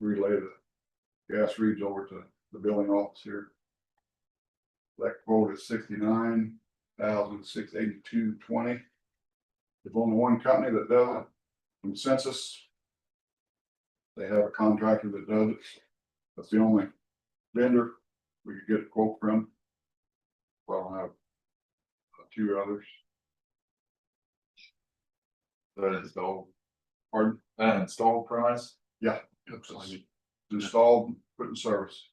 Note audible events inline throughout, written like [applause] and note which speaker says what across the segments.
Speaker 1: relay the gas reads over to the billing office here. That quote is sixty-nine thousand six eighty-two twenty. There's only one company that does it, from Census. They have a contractor that does it. That's the only vendor we could get a quote from. Well, I have a few others.
Speaker 2: The install,
Speaker 1: Pardon?
Speaker 2: uh, install price.
Speaker 1: Yeah.
Speaker 2: Looks like it.
Speaker 1: Installed, put in service.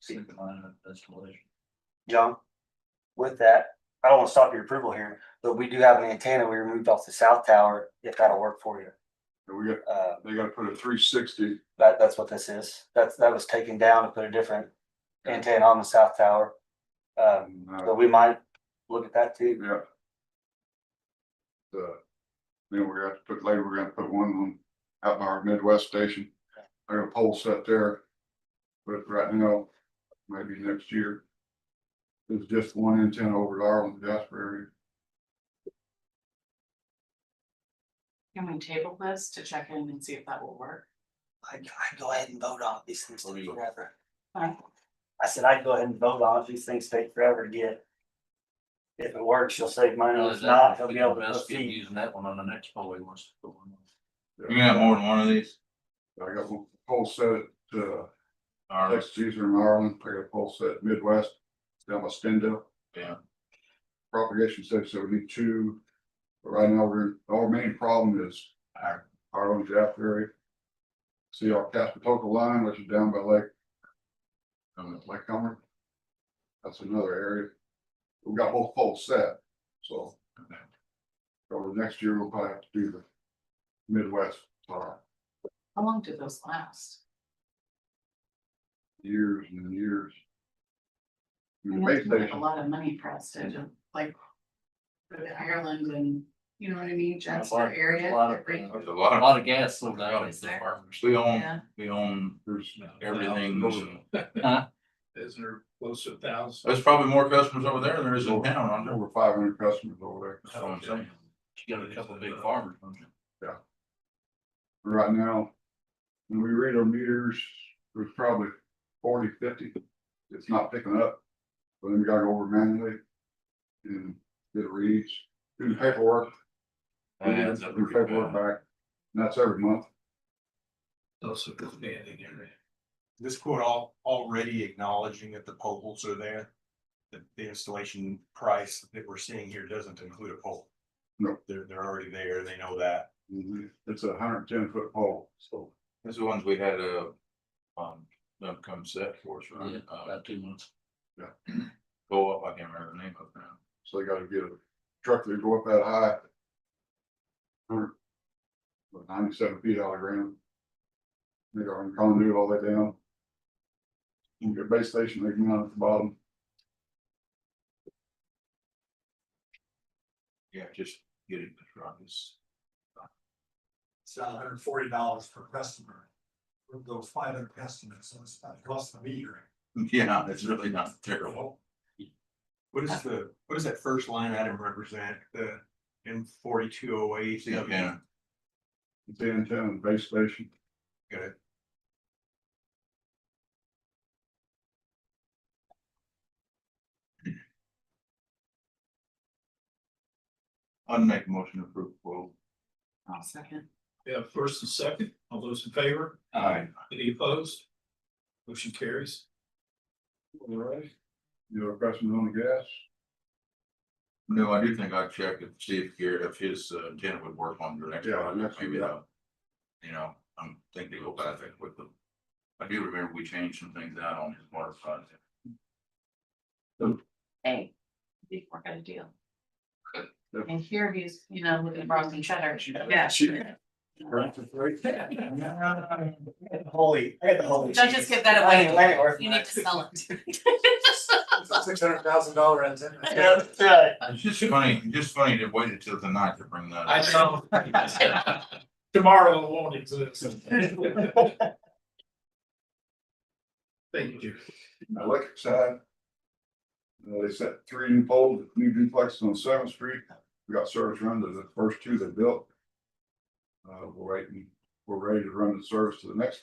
Speaker 2: Same kind of installation.
Speaker 3: John, with that, I don't want to stop your approval here, but we do have an antenna we removed off the south tower, if that'll work for you.
Speaker 1: And we got,
Speaker 3: Uh,
Speaker 1: they gotta put a three sixty,
Speaker 3: that, that's what this is. That's, that was taken down to put a different antenna on the south tower. Um,
Speaker 1: yeah.
Speaker 3: but we might look at that too.
Speaker 1: The, then we're gonna have to put, later we're gonna put one on out by our Midwest station. I got a pole set there. But right now, maybe next year. There's just one antenna over at Arlen, Jasper
Speaker 4: Can we table this to check in and see if that will work?
Speaker 3: I, I go ahead and vote on it. these things
Speaker 2: What do
Speaker 3: take
Speaker 2: you-
Speaker 3: forever.
Speaker 4: Huh?
Speaker 3: I said I'd go ahead and vote on it. these things take forever to get. If it works, you'll save money. If not, he'll be able to proceed.
Speaker 5: Using that one on the next poll he wants to put one on.
Speaker 2: You got more than one of these?
Speaker 1: area. I got one pole set at, uh,
Speaker 2: Or,
Speaker 1: Texas user in Ireland, I got a pole set at Midwest, down by Stendal.
Speaker 2: Yeah.
Speaker 1: Propagation said, so we need two. But Right now, we're, our main problem is
Speaker 2: or,
Speaker 1: Harlem, Jaffrey. See our Caspitoka line, which is down by Lake,
Speaker 2: um,
Speaker 1: Lake Comer. That's another area. We got both poles set, so. Over next year, we'll probably have to do the Midwest, uh,
Speaker 4: How long do those last?
Speaker 1: years and years.
Speaker 4: I
Speaker 1: And The
Speaker 4: know
Speaker 1: base
Speaker 4: it's like A
Speaker 1: station,
Speaker 4: lot of money pressed into, like, go to Ireland and, you know what I mean,
Speaker 5: There's a
Speaker 4: Jasper
Speaker 5: lot-
Speaker 4: area.
Speaker 5: there's a lot of,
Speaker 4: every-
Speaker 5: uh,
Speaker 2: There's
Speaker 5: A
Speaker 2: a lot,
Speaker 5: lot of gas sold out
Speaker 4: Is
Speaker 5: at the
Speaker 4: there?
Speaker 5: farmers.
Speaker 2: we own,
Speaker 4: Yeah,
Speaker 2: we own
Speaker 1: there's,
Speaker 2: everything.
Speaker 6: [laughs]
Speaker 5: Huh?
Speaker 6: Isn't there close to a thousand?
Speaker 2: There's probably more customers over there than there is in town, I know.
Speaker 1: over five hundred customers over
Speaker 2: That's what I'm saying.
Speaker 5: You got a couple of big farmers. don't you?
Speaker 1: there. Right now, when we read our meters, there's probably 40, 50. It's not picking up. But then we gotta go over manually. And get reads, do the paperwork,
Speaker 2: That
Speaker 1: Yeah,
Speaker 2: adds up
Speaker 1: the
Speaker 2: pretty
Speaker 1: paperwork
Speaker 2: bad.
Speaker 1: back, and that's every month.
Speaker 6: Also expanding area.
Speaker 7: this quote all already acknowledging that the poles are there. The, the installation price that we're seeing here doesn't include a pole.
Speaker 1: No.
Speaker 7: They're, they're already there, they know that.
Speaker 2: Mm-hmm.
Speaker 1: It's a hundred and ten foot pole, so
Speaker 2: That's the ones we had, uh, um, them come set for us,
Speaker 5: Yeah,
Speaker 2: right? Uh,
Speaker 5: about two months.
Speaker 2: go up, I can't remember the name of it now.
Speaker 1: so they gotta get a truck that go up that high. Hundred- about Ninety-seven feet out of ground. They got a conduit all the way down. And your base station, they come out at the bottom,
Speaker 2: Yeah, just get it, right, it's- [laughs]
Speaker 6: It's about hundred and forty dollars per customer. For those five hundred customers, so it's not costing a meter.
Speaker 2: yeah, it's really not terrible.
Speaker 7: What is the, what does that first line item represent? The M forty-two oh eight?
Speaker 2: See, yeah,
Speaker 1: it's the antenna and base station.
Speaker 7: Good.
Speaker 2: I'd make a motion to approve, well,
Speaker 4: I'll second.
Speaker 6: Yeah, first and second, all those in favor,
Speaker 2: I,
Speaker 6: any opposed? Motion carries.
Speaker 1: All right. You have questions on the gas?
Speaker 2: no, I do think I'd check and see if Garrett, if his uh, tenant would work on your next
Speaker 1: Yeah,
Speaker 2: project,
Speaker 1: next
Speaker 2: maybe
Speaker 1: year.
Speaker 2: that. You know, I'm thinking they go back there with them. I do remember we changed some things out on his water project.
Speaker 4: Hey, we work out a deal.
Speaker 1: Yep.
Speaker 4: And here he's, you know, looking broken cheddar.
Speaker 1: Yeah, sure.
Speaker 3: Holy, I got the holy.
Speaker 4: Don't just
Speaker 3: cheese.
Speaker 4: give that
Speaker 3: I ain't
Speaker 4: away.
Speaker 3: let it worth
Speaker 4: You
Speaker 3: my-
Speaker 4: need to sell it.
Speaker 6: Six hundred thousand
Speaker 3: [laughs]
Speaker 6: dollar antenna.
Speaker 3: Yeah, that's right.
Speaker 2: It's just funny, just funny to wait until tonight to bring that.
Speaker 6: I
Speaker 2: up.
Speaker 6: [laughs] know. Tomorrow won't exist. Thank you, Jerry.
Speaker 1: electric side. uh, They set three new poles, new duplexes on Seventh Street. We got service run to the first two they built. Uh, we're waiting, we're ready to run the service to the next